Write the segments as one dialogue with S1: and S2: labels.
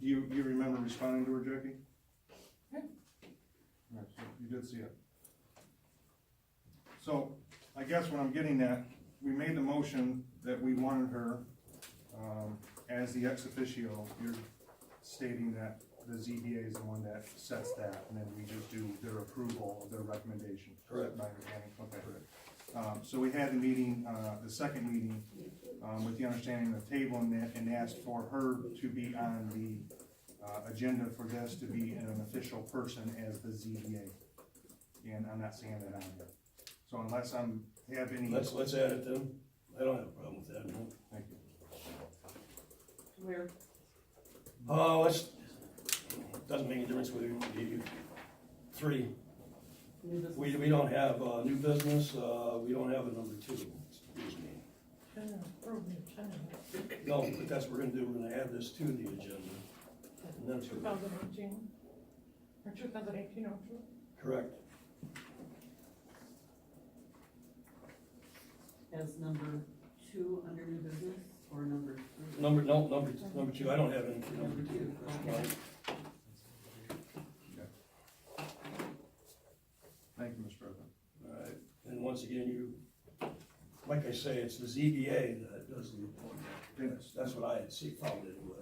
S1: Do you, you remember responding to her, Jackie?
S2: Yeah.
S1: All right, so You did see it. So, I guess what I'm getting at, we made the motion that we wanted her, um, as the ex officio. You're stating that the ZBA is the one that sets that, and then we just do their approval of their recommendation.
S3: Correct.
S1: My understanding, okay. Um, so we had the meeting, uh, the second meeting, um, with the understanding of tabling that and asked for her to be on the, uh, agenda for this to be an official person as the ZBA. And I'm not seeing that on here. So unless I'm, have any,
S3: Let's, let's add it then. I don't have a problem with that, no.
S1: thank you.
S2: Where,
S3: Uh, let's, doesn't make any difference whether you, you- three.
S2: new business?
S3: We, we don't have, uh, new business, uh, we don't have a number two, excuse me.
S2: China, approve new China.
S3: No, but that's what we're gonna do, we're gonna add this to the agenda. And that's
S2: Two thousand eighteen, or two thousand eighteen, or two?
S3: correct.
S4: as number two under new business or number three?
S3: Number, no, number, number two, I don't have any for number
S4: Number
S3: two.
S4: two, okay.
S1: Thank you, Mr. President.
S3: Alright, and once again, you, like I say, it's the ZBA that does the appointment. That's, that's what I had see, found anyway.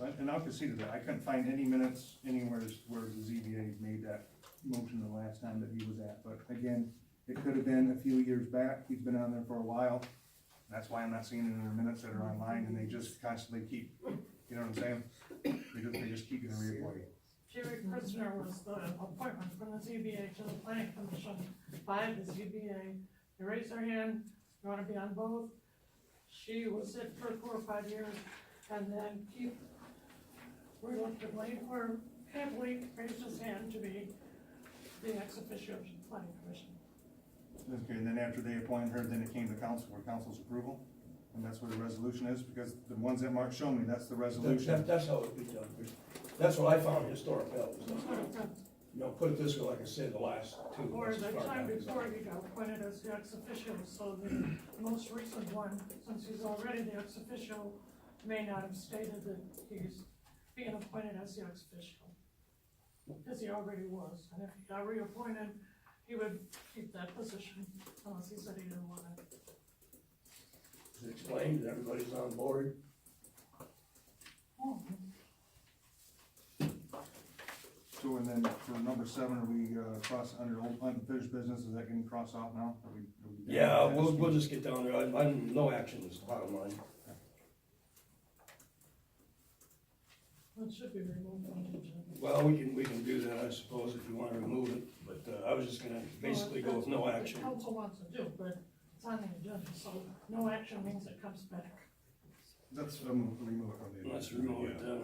S1: And- And I'll concede that, I couldn't find any minutes anywhere where the ZBA made that motion the last time that he was at, but again, it could have been a few years back, he's been on there for a while. That's why I'm not seeing it in their minutes that are online, and they just constantly keep, you know what I'm saying? They just, they just keep getting reappointed.
S2: Jerry Prisoner was the appointment from the ZBA to the planning commission by the ZBA. You raise her hand, you wanna be on both. She was it for four or five years, and then Keith reluctantly or happily raised his hand to be the ex officio of the planning commission.
S1: Okay, and then after they appointed her, then it came to council for council's approval, and that's where the resolution is, because the ones that Mark showed me, that's the
S3: That-
S1: resolution.
S3: that- that's how it'd be done. That's what I found historic values. You know, put it this way, like I said, the last two.
S2: Or
S3: that's
S2: the
S3: as far
S2: time
S3: back as I-
S2: before he got appointed as the ex officio, so the most recent one, since he's already the ex officio, may not have stated that he's being appointed as the ex officio. Because he already was, and if he got reappointed, he would keep that position unless he said he didn't want it.
S3: It's Explained, and everybody's on board.
S1: So, and then for number seven, are we, uh, cross under old unfinished business, is that getting crossed off now? Are we- are we-
S3: Yeah, we'll, we'll just get down there. I, I'm, no action is the bottom line.
S2: It should be removed from the agenda.
S3: Well, we can, we can do that, I suppose, if you wanna remove it, but, uh, I was just gonna basically go with no
S2: Well, that's
S3: action.
S2: what The council wants to do, but it's on the agenda, so no action means it comes back.
S1: Let's um, remove it from the.
S3: Let's remove it, uh,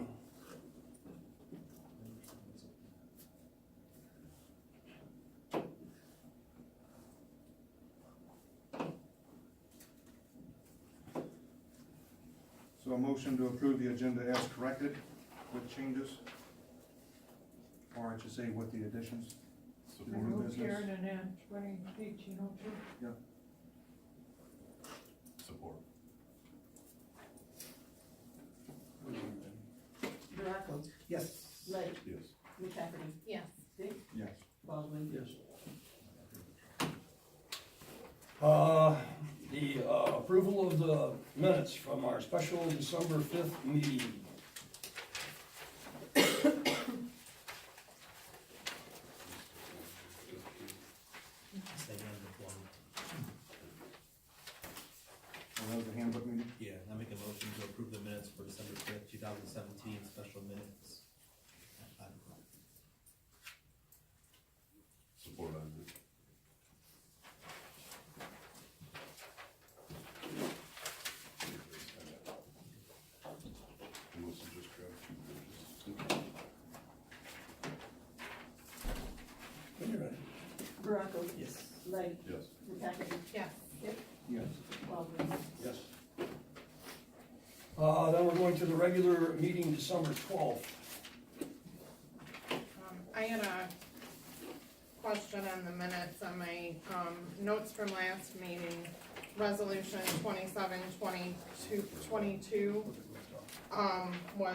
S1: So a motion to approve the agenda as corrected with changes? Or I should say with the additions? to the new
S2: Remove
S1: business.
S2: Karen and add twenty eighteen oh two.
S5: Support.
S4: Morocco,
S3: Yes.
S4: Ledge,
S5: Yes.
S4: McCafferty,
S6: Yes.
S4: Dick,
S1: Yes.
S4: Baldwin.
S3: Yes. Uh, the uh, approval of the minutes from our special December fifth meeting.
S7: They can have the one.
S1: And that was a handbook meeting?
S7: Yeah, I make a motion to approve the minutes for December fifth, two thousand seventeen, special minutes. at five o'clock.
S5: Support on it. You must have just grabbed two pages.
S3: When you're ready.
S4: Morocco,
S7: Yes.
S4: Ledge,
S5: Yes.
S4: McCafferty,
S6: Yes.
S4: Dick,
S1: Yes.
S4: Baldwin.
S3: Yes. Uh, then we're going to the regular meeting December twelfth.
S6: Um, I had a question on the minutes on my, um, notes from last meeting, resolution twenty-seven, twenty-two, twenty-two, um, was